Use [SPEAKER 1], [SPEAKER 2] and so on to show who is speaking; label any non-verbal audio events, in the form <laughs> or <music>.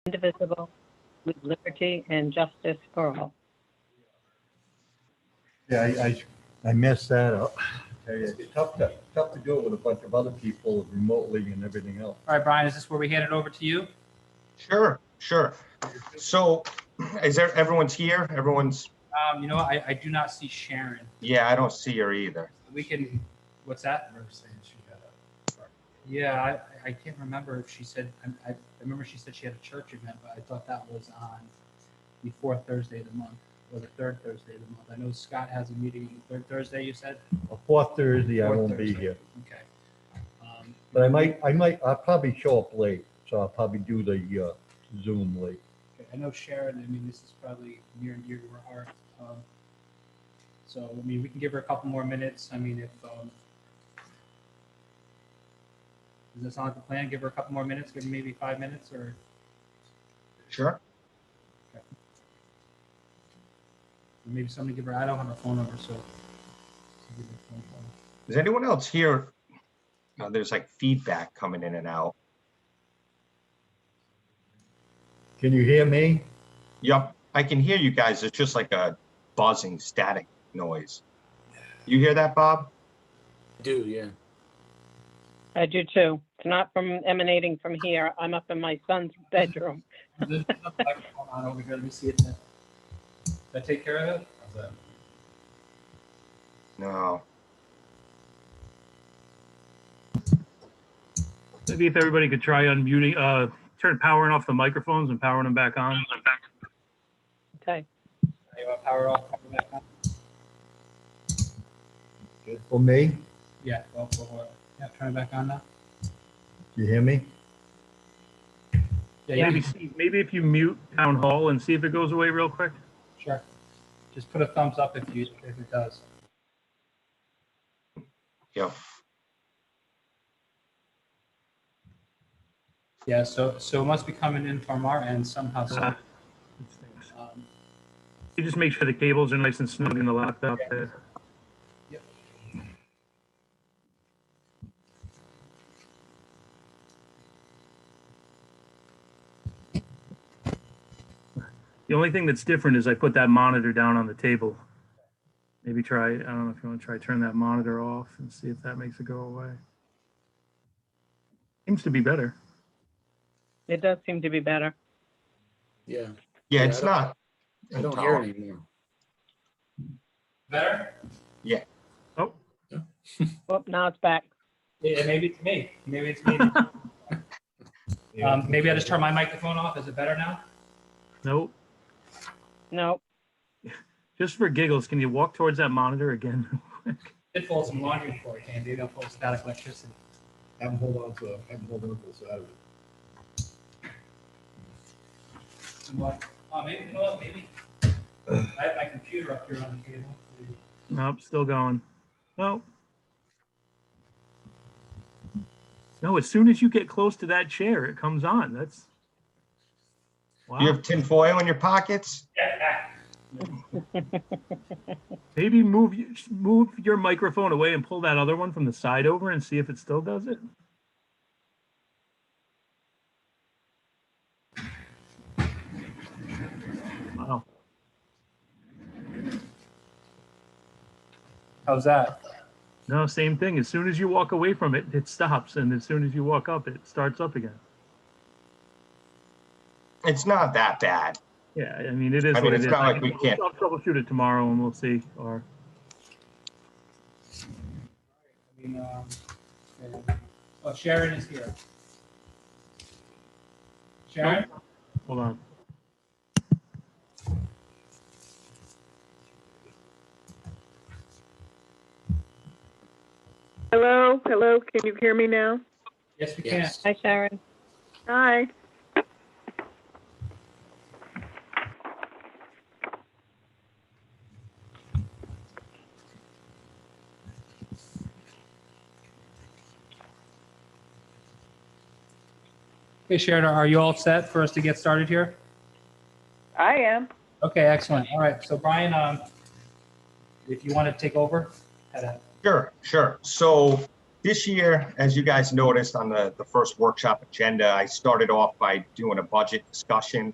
[SPEAKER 1] indivisible, with liberty and justice for all.
[SPEAKER 2] Yeah, I, I, I messed that up. Tell you, It's tough to, tough to do it with a bunch of other people remotely and everything else.
[SPEAKER 3] All right, Brian, is this where we hand it over to you?
[SPEAKER 4] Sure, sure. So is there, everyone's here? Everyone's,
[SPEAKER 3] Um, you know, what? I, I do not see Sharon.
[SPEAKER 4] yeah, I don't see her either.
[SPEAKER 3] We can, what's that? Yeah, I, I can't remember if she said, I, I remember she said she had a church event, but I thought that was on the fourth Thursday of the month or the third Thursday of the month. I know Scott has a meeting on the third Thursday, you said?
[SPEAKER 2] A Fourth Thursday, I
[SPEAKER 3] Fourth
[SPEAKER 2] won't be
[SPEAKER 3] Thursday.
[SPEAKER 2] here,
[SPEAKER 3] Okay. Um,
[SPEAKER 2] but I might, I might, I'll probably show up late, so I'll probably do the uh, Zoom late.
[SPEAKER 3] Okay, I know Sharon, I mean, this is probably near and dear to her heart. um, So, I mean, we can give her a couple more minutes. I mean, if, um, does that sound like a plan? Give her a couple more minutes, give her maybe five minutes or?
[SPEAKER 4] Sure.
[SPEAKER 3] Or Maybe somebody give her, I don't have her phone number, so. so give her a phone call.
[SPEAKER 4] Is anyone else here? Uh, There's like feedback coming in and out.
[SPEAKER 2] Can you hear me?
[SPEAKER 4] Yep, I can hear you guys. It's just like a buzzing static noise. You hear that, Bob?
[SPEAKER 5] Do, yeah.
[SPEAKER 1] I do too. It's not from emanating from here. I'm up in my son's bedroom.
[SPEAKER 3] There's a microphone on over here, let me see it. Did I take care of it? How's that?
[SPEAKER 4] No.
[SPEAKER 6] Maybe if everybody could try unmuting, uh, turn powering off the microphones and powering them back on.
[SPEAKER 1] Okay.
[SPEAKER 3] You want power off, power back on?
[SPEAKER 2] Good For me?
[SPEAKER 3] Yeah, well, well, well, yeah, turn it back on now.
[SPEAKER 2] You hear me?
[SPEAKER 3] Yeah,
[SPEAKER 6] Maybe,
[SPEAKER 3] yeah,
[SPEAKER 6] see- maybe if you mute town hall and see if it goes away real quick.
[SPEAKER 3] sure. Just put a thumbs up if you, if it does.
[SPEAKER 4] Yep.
[SPEAKER 3] Yeah, so, so it must be coming in from our end somehow, so,
[SPEAKER 6] Uh, it stinks.
[SPEAKER 3] um,
[SPEAKER 6] You just make sure the cables are nice and snug in the laptop there. The only thing that's different is I put that monitor down on the table. Maybe try, I don't know if you want to try turn that monitor off and see if that makes it go away. Seems to be better.
[SPEAKER 1] It does seem to be better.
[SPEAKER 5] Yeah.
[SPEAKER 4] Yeah,
[SPEAKER 5] Yeah,
[SPEAKER 4] it's
[SPEAKER 5] I don't-
[SPEAKER 4] not.
[SPEAKER 5] I don't hear it anymore.
[SPEAKER 3] better?
[SPEAKER 6] Oh,
[SPEAKER 1] Oh, now it's back.
[SPEAKER 3] Yeah, maybe it's me, maybe it's me. Um, maybe I just turn my microphone off, is it better now?
[SPEAKER 6] nope.
[SPEAKER 1] No,
[SPEAKER 6] Just for giggles, can you walk towards that monitor again? <laughs>
[SPEAKER 3] Did fold some laundry before it came, maybe I'll fold static electricity.
[SPEAKER 2] Have them hold on to, have them hold on to Saturday.
[SPEAKER 3] I'm like, oh, maybe, you know what, maybe. I have my computer up here on the table.
[SPEAKER 6] Nope, still going. Nope. No, as soon as you get close to that chair, it comes on. That's.
[SPEAKER 4] You
[SPEAKER 6] Wow.
[SPEAKER 4] have tinfoil in your pockets?
[SPEAKER 3] Yeah,
[SPEAKER 6] Maybe move, y- move your microphone away and pull that other one from the side over and see if it still does it. Wow.
[SPEAKER 3] how's that?
[SPEAKER 6] No, same thing. As soon as you walk away from it, it stops. And as soon as you walk up, it starts up again.
[SPEAKER 4] It's not that bad.
[SPEAKER 6] Yeah, I mean, it is
[SPEAKER 4] I mean,
[SPEAKER 6] what it
[SPEAKER 4] it's
[SPEAKER 6] is.
[SPEAKER 4] not
[SPEAKER 6] I
[SPEAKER 4] like
[SPEAKER 6] can-
[SPEAKER 4] we can't-
[SPEAKER 6] I'll troubleshoot it tomorrow and we'll see, or,
[SPEAKER 3] I mean, um, yeah. oh, Sharon is here. Sharon?
[SPEAKER 6] hold on.
[SPEAKER 7] Hello, hello, can you hear me now?
[SPEAKER 3] Yes, we can.
[SPEAKER 5] Yes.
[SPEAKER 1] hi Sharon.
[SPEAKER 7] Hi.
[SPEAKER 3] Okay, Sharon, are you all set for us to get started here?
[SPEAKER 7] I am.
[SPEAKER 3] Okay, excellent. All right, so Brian, um, if you want to take over, had a-
[SPEAKER 4] Sure, sure. So This year, as you guys noticed on the, the first workshop agenda, I started off by doing a budget discussion.